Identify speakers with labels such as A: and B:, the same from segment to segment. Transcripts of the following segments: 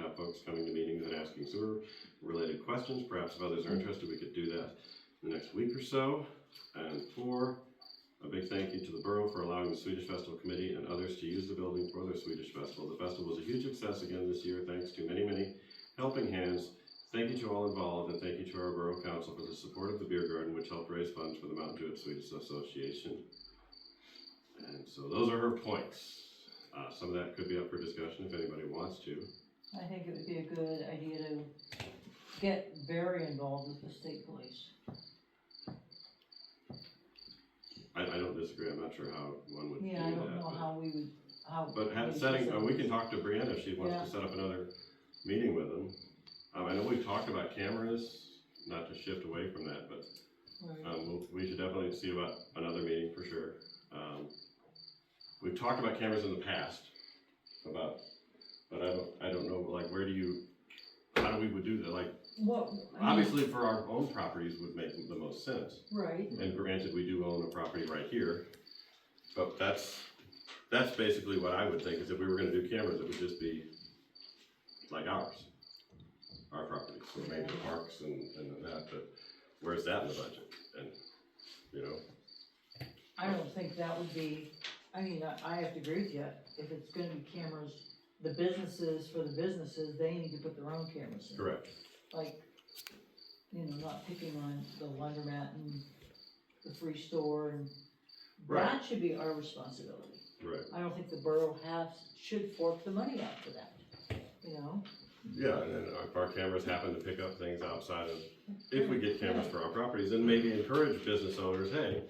A: have folks coming to meetings and asking sewer related questions. Perhaps if others are interested, we could do that in the next week or so. And four, a big thank you to the borough for allowing the Swedish Festival Committee and others to use the building for their Swedish Festival. The festival was a huge success again this year, thanks to many, many helping hands. Thank you to all involved, and thank you to our Borough Council for the support of the Beer Garden, which helped raise funds for the Mountain Jewett Swedish Association. And so those are her points. Uh, some of that could be up for discussion if anybody wants to.
B: I think it would be a good idea to get very involved with the state police.
A: I, I don't disagree, I'm not sure how one would do
B: Yeah, I don't
A: that.
B: know
A: but-
B: how we would, how.
A: But have
B: we
A: setting, uh, we
B: should-
A: can talk to Brianna if she wants
B: Yeah.
A: to set up another meeting with them. Um, I know we've talked about cameras, not to shift away from that, but
B: Right.
A: Um, we'll- we should definitely see about another meeting for sure. Um, we've talked about cameras in the past, about, but I don't, I don't know, like, where do you, how do we would do that, like,
B: What, I mean,
A: obviously for our own properties would make the most sense.
B: right,
A: And granted, we do own a property right here, but that's, that's basically what I would think, is if we were gonna do cameras, it would just be like ours. Our properties, so maybe the parks and, and that, but where's that in the budget? And, you know,
B: I don't think that would be, I mean, I, I have to agree with you, if it's gonna be cameras, the businesses, for the businesses, they need to put their own cameras in.
A: correct,
B: Like, you know, not picking on the laundromat and the free store and,
A: Right.
B: that should be our responsibility.
A: right,
B: I don't think the borough has, should fork the money out for that, you know?
A: yeah, and then if our cameras happen to pick up things outside of, if we get cameras for our properties, then maybe encourage business owners, hey,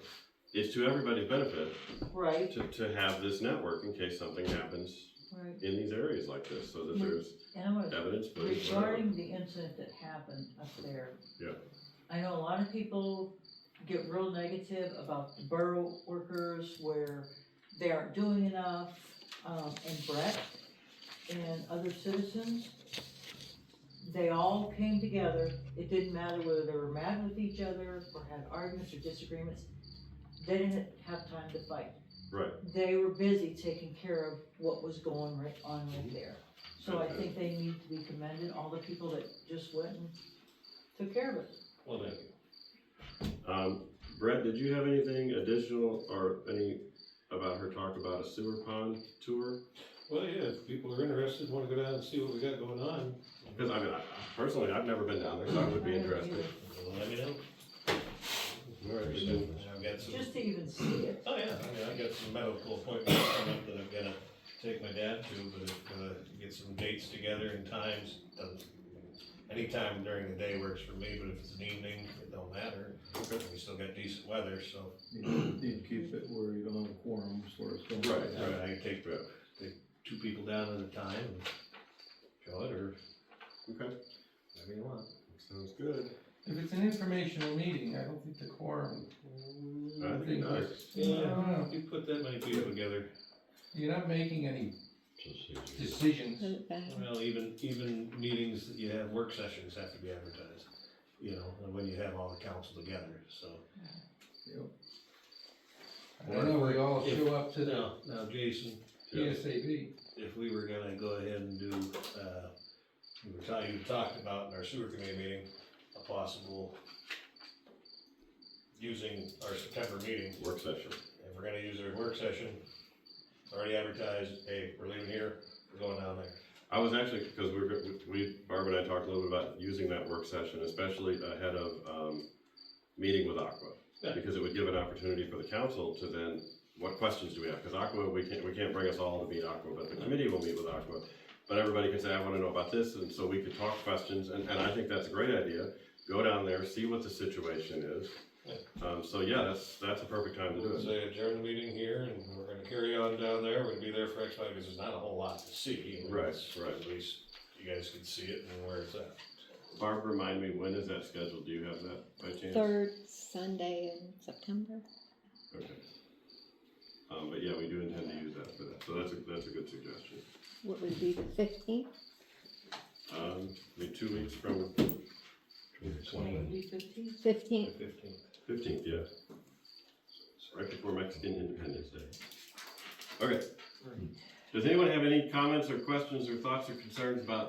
A: it's to everybody's benefit
B: Right,
A: to, to have this network in case something happens
B: right.
A: in these areas like this, so that
B: Yeah.
A: there's
B: And I'm gonna,
A: evidence, but it's whatever.
B: regarding the incident that happened up there.
A: Yeah.
B: I know a lot of people get real negative about the borough workers where they aren't doing enough, um, and Brett and other citizens. They all came together, it didn't matter whether they were mad with each other or had arguments or disagreements, they didn't have time to fight.
A: right,
B: they were busy taking care of what was going right on
A: Mm-hmm.
B: right there. So I think they need to be commended, all the people that just went and took care of it.
A: well, thank you. Um, Brett, did you have anything additional or any about her talk about a sewer pond tour?
C: Well, yeah, if people are interested, wanna go down and see what we got going on,
A: Cause I mean, I, personally, I've never been down there, so I would be interested.
C: let me know.
A: All right, we can-
C: I've got some,
B: Just to even see it,
C: oh yeah, I mean, I've got some medical appointments coming up that I've gotta take my dad to, but if, uh, get some dates together and times, doesn't, anytime during the day works for me, but if it's an evening, it don't matter. We still got decent weather, so,
D: You need to keep it where you don't have a quorum, is where it's going.
A: Right.
C: I can take, take two people down at a time and show it, or
A: Okay,
C: whatever you want.
A: sounds good.
E: If it's an informational meeting, I don't think the quorum.
A: I
E: I
A: think
E: think
A: not.
E: it's-
C: Yeah, if you put that many people together,
E: You're not making any decisions.
C: Well, even, even meetings, that you have work sessions have to be advertised, you know, and when you have all the council together, so.
E: I don't know, we all
C: If-
E: show up to the
C: Now, now, Jason,
A: Yeah.
E: PSAB.
C: if we were gonna go ahead and do, uh, we were talking, you talked about in our sewer committee meeting, a possible using our September meeting,
A: Work session.
C: if we're gonna use our work session, it's already advertised, hey, we're leaving here, we're going down there.
A: I was actually, because we're, go- we, Barb and I talked a little bit about using that work session, especially ahead of, um, meeting with Aqua.
C: Yeah.
A: Because it would give an opportunity for the council to then, what questions do we have? Because Aqua, we can't, we can't bring us all to meet Aqua, but the committee will meet with Aqua. But everybody can say, I wanna know about this, and so we could talk questions, and, and I think that's a great idea. Go down there, see what the situation is. Um, so yeah, that's, that's a perfect time to do
C: We'll
A: it.
C: say adjourn the meeting here, and we're gonna carry on down there, we're gonna be there for X because there's not a whole lot to see. I mean,
A: Right,
C: it's-
A: right.
C: At least you guys can see it and where it's at.
A: Barb, remind me, when is that scheduled? Do you have that by chance?
F: Third Sunday in September.
A: Okay. Um, but yeah, we do intend to use that for that, so that's a, that's a good suggestion.
F: What would be the fifteenth?
A: Um, I mean, two weeks from
B: maybe fifteen.
F: Fifteenth.
C: Fifteenth.
A: fifteenth, yeah, right before Mexican Independence Day. Okay. Does anyone have any comments or questions or thoughts or concerns about